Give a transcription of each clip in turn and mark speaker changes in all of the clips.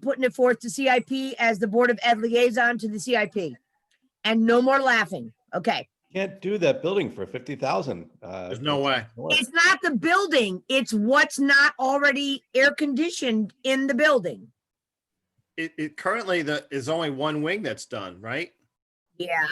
Speaker 1: putting it forth to CIP as the Board of Ed liaison to the CIP. And no more laughing. Okay.
Speaker 2: Can't do that building for fifty thousand. uh,
Speaker 3: There's no way.
Speaker 1: It's not the building, it's what's not already air conditioned in the building.
Speaker 3: It, it currently the, is only one wing that's done, right?
Speaker 1: Yeah,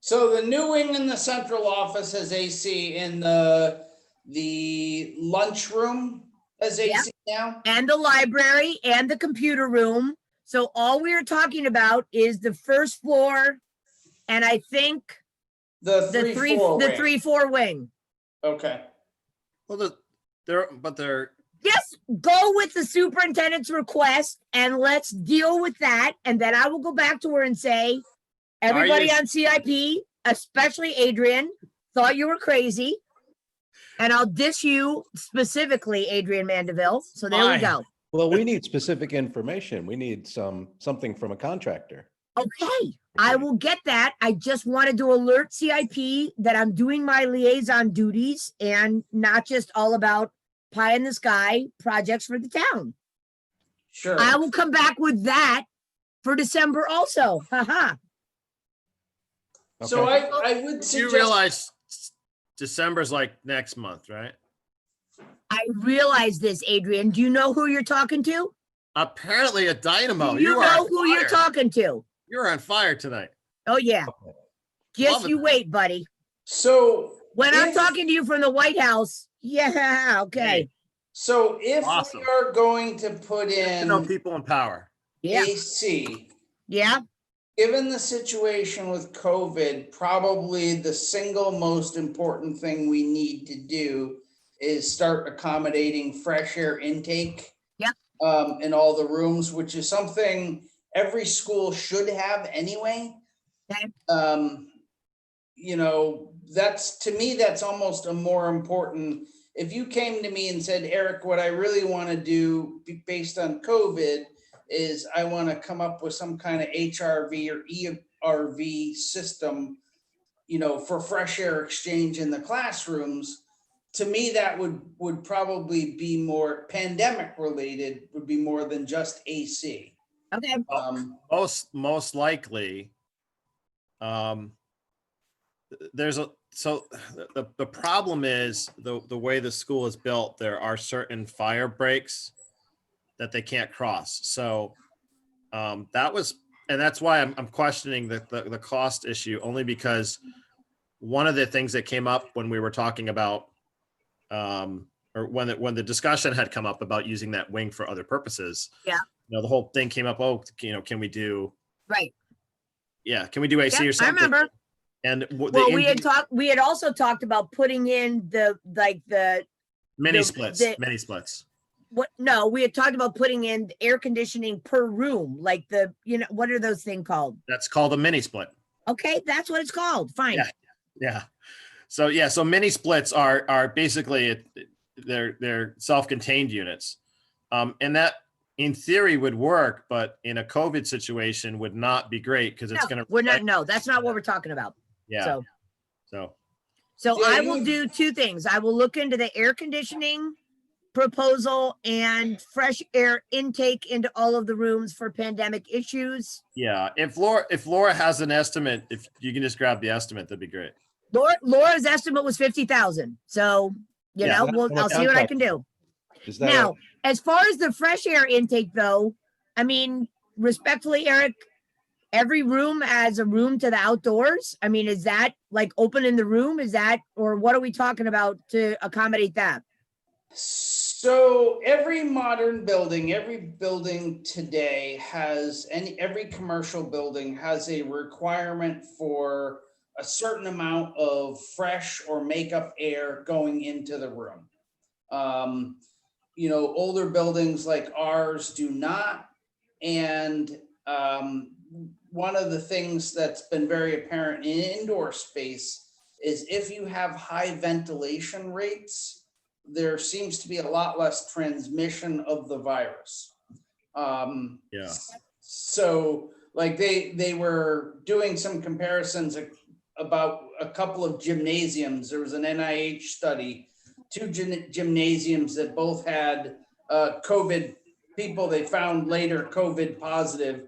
Speaker 4: So the new wing in the central office has AC in the, the lunchroom has
Speaker 1: Yeah.
Speaker 4: AC now?
Speaker 1: and the library and the computer room. So all we are talking about is the first floor and I think
Speaker 4: The
Speaker 1: the
Speaker 4: three,
Speaker 1: three,
Speaker 4: four
Speaker 1: the
Speaker 4: wing.
Speaker 1: three, four wing.
Speaker 4: Okay,
Speaker 3: Well, the, they're, but they're,
Speaker 1: Yes, go with the superintendent's request and let's deal with that. And then I will go back to her and say, everybody
Speaker 3: you-
Speaker 1: on CIP, especially Adrian, thought you were crazy. And I'll diss you specifically, Adrian Mandeville. So there we
Speaker 3: Fine.
Speaker 1: go.
Speaker 2: Well, we need specific information. We need some, something from a contractor.
Speaker 1: Okay, I will get that. I just wanted to alert CIP that I'm doing my liaison duties and not just all about pie in the sky projects for the town.
Speaker 4: sure.
Speaker 1: I will come back with that for December also. Haha.
Speaker 4: So
Speaker 2: Okay.
Speaker 4: I, I would
Speaker 3: you
Speaker 4: suggest,
Speaker 3: realize December's like next month, right?
Speaker 1: I realize this, Adrian. Do you know who you're talking to?
Speaker 3: Apparently a dynamo.
Speaker 1: Do
Speaker 3: You
Speaker 1: you
Speaker 3: are
Speaker 1: know
Speaker 3: on
Speaker 1: who you're
Speaker 3: fire.
Speaker 1: talking to?
Speaker 3: You're on fire tonight.
Speaker 1: Oh, yeah. Just
Speaker 3: Love it.
Speaker 1: you wait, buddy.
Speaker 4: so,
Speaker 1: When I'm
Speaker 4: If-
Speaker 1: talking to you from the White House, yeah, okay.
Speaker 4: so if
Speaker 3: Awesome.
Speaker 4: we are going to put
Speaker 3: You know,
Speaker 4: in
Speaker 3: people in power.
Speaker 1: Yeah,
Speaker 4: AC,
Speaker 1: yeah.
Speaker 4: given the situation with COVID, probably the single most important thing we need to do is start accommodating fresh air intake.
Speaker 1: Yep.
Speaker 4: Um, in all the rooms, which is something every school should have anyway.
Speaker 1: Okay.
Speaker 4: Um, you know, that's, to me, that's almost a more important. If you came to me and said, Eric, what I really want to do be- based on COVID is I want to come up with some kind of HRV or ERV system, you know, for fresh air exchange in the classrooms. To me, that would, would probably be more pandemic related, would be more than just AC.
Speaker 1: Okay.
Speaker 4: Um,
Speaker 3: Most, most likely. Um, th- there's a, so the- the, the problem is the, the way the school is built, there are certain fire breaks that they can't cross. So um, that was, and that's why I'm, I'm questioning the, the, the cost issue only because one of the things that came up when we were talking about um, or when, the- when the discussion had come up about using that wing for other purposes.
Speaker 1: Yeah.
Speaker 3: You know, the whole thing came up, oh, you know, can we do,
Speaker 1: Right.
Speaker 3: yeah, can we do AC
Speaker 1: Yep,
Speaker 3: or
Speaker 1: I
Speaker 3: something?
Speaker 1: remember.
Speaker 3: And w-
Speaker 1: Well, we
Speaker 3: the
Speaker 1: had talked, we had also talked about putting in the, like, the,
Speaker 3: mini
Speaker 1: the-
Speaker 3: splits,
Speaker 1: the-
Speaker 3: mini splits.
Speaker 1: what, no, we had talked about putting in air conditioning per room, like the, you know, what are those thing called?
Speaker 3: That's called a mini split.
Speaker 1: Okay, that's what it's called. Fine.
Speaker 3: Yeah. Yeah. So yeah, so mini splits are are basically it- they're they're self-contained units. Um, and that in theory would work, but in a COVID situation would not be great because it's
Speaker 1: No,
Speaker 3: gonna.
Speaker 1: We're not, no, that's not what we're talking about.
Speaker 3: Yeah,
Speaker 1: So,
Speaker 3: so
Speaker 1: so
Speaker 4: Yeah,
Speaker 1: I
Speaker 4: you
Speaker 1: will
Speaker 4: would-
Speaker 1: do two things. I will look into the air conditioning proposal and fresh air intake into all of the rooms for pandemic issues.
Speaker 3: yeah, if Laura, if Laura has an estimate, if you can just grab the estimate, that'd be great.
Speaker 1: Laura, Laura's estimate was fifty thousand, so, you
Speaker 3: Yeah,
Speaker 1: know,
Speaker 2: that's
Speaker 1: we'll,
Speaker 2: what
Speaker 1: I'll see what I can do.
Speaker 2: Is that,
Speaker 1: Now,
Speaker 2: a-
Speaker 1: as far as the fresh air intake though, I mean, respectfully, Eric, every room has a room to the outdoors. I mean, is that like open in the room? Is that, or what are we talking about to accommodate that?
Speaker 4: So every modern building, every building today has, and every commercial building has a requirement for a certain amount of fresh or makeup air going into the room. Um, you know, older buildings like ours do not. And um, one of the things that's been very apparent in indoor space is if you have high ventilation rates, there seems to be a lot less transmission of the virus. Um,
Speaker 3: Yeah.
Speaker 4: So like they, they were doing some comparisons ac- about a couple of gymnasiums. There was an NIH study, two gyn- gymnasiums that both had uh, COVID people they found later COVID positive